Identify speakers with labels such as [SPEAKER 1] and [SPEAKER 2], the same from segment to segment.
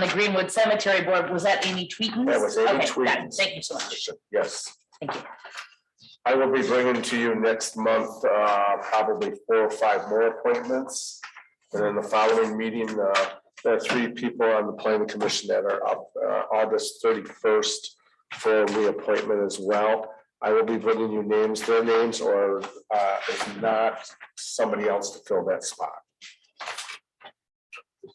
[SPEAKER 1] the Greenwood Cemetery Board, was that Amy Tweetins?
[SPEAKER 2] That was Amy
[SPEAKER 1] Okay, got it.
[SPEAKER 2] Tweetins.
[SPEAKER 1] Thank you so much.
[SPEAKER 2] Yes.
[SPEAKER 1] Thank you.
[SPEAKER 2] I will be bringing to you next month, uh, probably four or five more appointments. And then the following meeting, uh, there are three people on the planning commission that are up, uh, August thirty-first for reappointment as well. I will be bringing you names, their names, or, uh, if not, somebody else to fill that spot. Do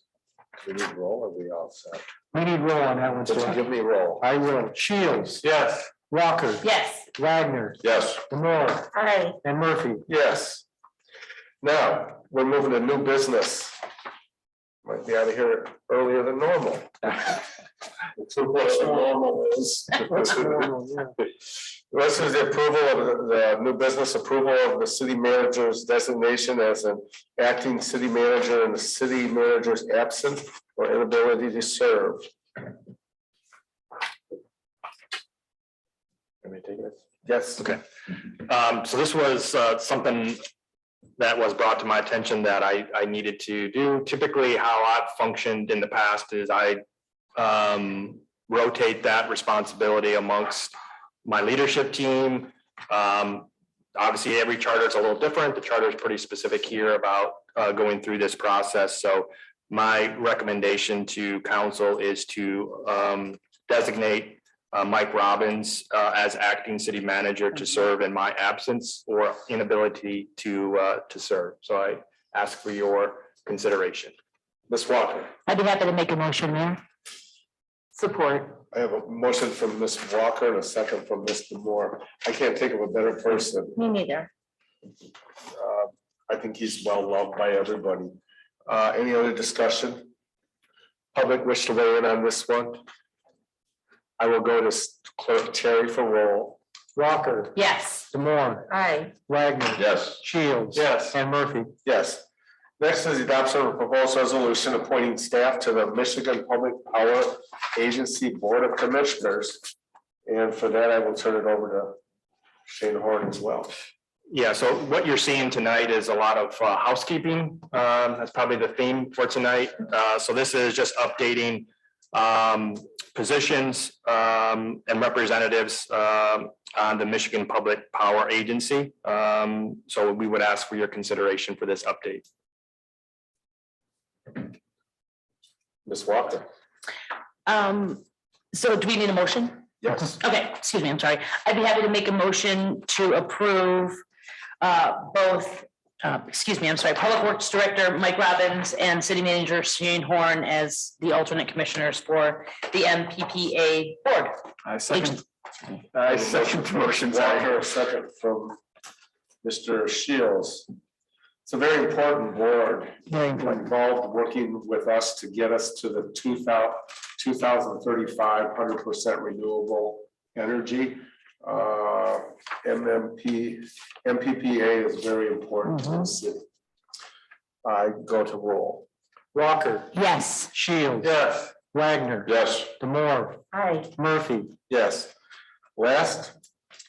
[SPEAKER 2] we need roll or we all set?
[SPEAKER 3] We need roll on that one,
[SPEAKER 2] Did you
[SPEAKER 3] sir.
[SPEAKER 2] give me roll?
[SPEAKER 3] I will. Shields.
[SPEAKER 2] Yes.
[SPEAKER 3] Walker.
[SPEAKER 1] Yes.
[SPEAKER 3] Wagner.
[SPEAKER 2] Yes.
[SPEAKER 3] Demore.
[SPEAKER 1] Hi.
[SPEAKER 3] And Murphy.
[SPEAKER 2] Yes. Now, we're moving to new business. Might be out of here earlier than normal. Too close to normal is. This is the approval of the the new business approval of the city manager's designation as an acting city manager and the city manager's absence or inability to serve. Let me take it. Yes.
[SPEAKER 4] Okay. Um, so this was, uh, something that was brought to my attention that I, I needed to do. Typically, how I've functioned in the past is I, um, rotate that responsibility amongst my leadership team. Um, obviously, every charter is a little different. The charter is pretty specific here about, uh, going through this process. So my recommendation to council is to, um, designate uh, Mike Robbins uh, as acting city manager to serve in my absence or inability to, uh, to serve. So I ask for your consideration.
[SPEAKER 2] Ms. Walker.
[SPEAKER 1] I'd be happy to make a motion, Mayor. Support.
[SPEAKER 2] I have a motion from Ms. Walker and a second from Mr. Moore. I can't think of a better person.
[SPEAKER 1] Me neither.
[SPEAKER 2] Uh, I think he's well loved by everybody. Uh, Any other discussion? Public wish to weigh in on this one? I will go to Clerk Terry for roll.
[SPEAKER 3] Walker.
[SPEAKER 1] Yes.
[SPEAKER 3] Demore.
[SPEAKER 1] Hi.
[SPEAKER 3] Wagner.
[SPEAKER 2] Yes.
[SPEAKER 3] Shields.
[SPEAKER 2] Yes.
[SPEAKER 3] And Murphy.
[SPEAKER 2] Yes. Next is the adoption of a proposed resolution appointing staff to the Michigan Public Power Agency Board of Commissioners. And for that, I will turn it over to Shane Horn as well.
[SPEAKER 4] Yeah, so what you're seeing tonight is a lot of uh, housekeeping. Um, That's probably the theme for tonight. Uh, So this is just updating um, positions um, and representatives um, on the Michigan Public Power Agency. Um, So we would ask for your consideration for this update.
[SPEAKER 2] Ms. Walker.
[SPEAKER 1] Um, so do we need a motion?
[SPEAKER 2] Yes.
[SPEAKER 1] Okay, excuse me, I'm sorry. I'd be happy to make a motion to approve uh, both, uh, excuse me, I'm sorry, Public Works Director Mike Robbins and City Manager Shane Horn as the alternate commissioners for the MPPA Board.
[SPEAKER 5] I
[SPEAKER 1] Agent-
[SPEAKER 5] second, I second the motion, sorry.
[SPEAKER 2] Walker, a second from Mr. Shields. It's a very important board,
[SPEAKER 3] Very important.
[SPEAKER 2] involved working with us to get us to the 2000 2035 100 percent renewable energy. Uh, MMP, MPPA is very important to the city. I go to roll.
[SPEAKER 3] Walker.
[SPEAKER 1] Yes.
[SPEAKER 3] Shields.
[SPEAKER 2] Yes.
[SPEAKER 3] Wagner.
[SPEAKER 2] Yes.
[SPEAKER 3] Demore.
[SPEAKER 1] Hi.
[SPEAKER 3] Murphy.
[SPEAKER 2] Yes. Last,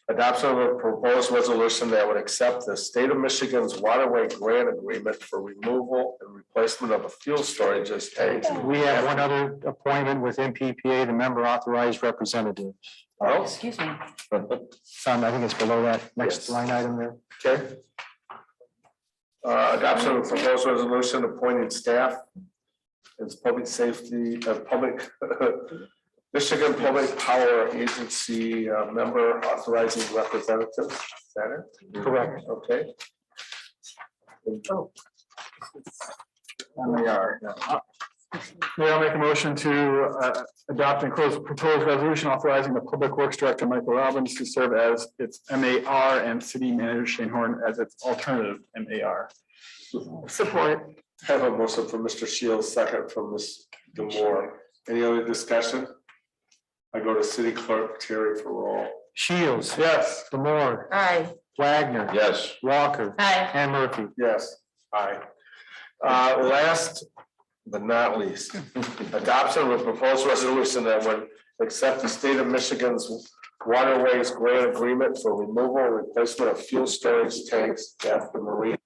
[SPEAKER 2] adoption of a proposed resolution that would accept the state of Michigan's waterway grant agreement for removal and replacement of a fuel storage as tanks.
[SPEAKER 3] We have one other appointment with MPPA, the member authorized representative.
[SPEAKER 2] Oh,
[SPEAKER 1] Excuse me.
[SPEAKER 3] Some, I think it's below that
[SPEAKER 2] Yes.
[SPEAKER 3] next line item there.
[SPEAKER 2] Okay. Uh, adoption of a proposed resolution appointing staff as public safety, uh, public, Michigan Public Power Agency uh, member authorizing representative, is that it?
[SPEAKER 3] Correct.
[SPEAKER 2] Okay. And we are.
[SPEAKER 5] May I make a motion to uh, adopt and close proposed resolution authorizing the Public Works Director Michael Robbins to serve as its MAR and City Manager Shane Horn as its alternative MAR.
[SPEAKER 2] Support. Have a motion from Mr. Shields, second from Ms. Demore. Any other discussion? I go to City Clerk Terry for roll.
[SPEAKER 3] Shields.
[SPEAKER 2] Yes.
[SPEAKER 3] Demore.
[SPEAKER 1] Hi.
[SPEAKER 3] Wagner.
[SPEAKER 2] Yes.
[SPEAKER 3] Walker.
[SPEAKER 1] Hi.
[SPEAKER 3] And Murphy.
[SPEAKER 2] Yes, aye. Uh, last but not least, adoption of a proposed resolution that would accept the state of Michigan's waterways grant agreement for removal and replacement of fuel storage tanks at the marina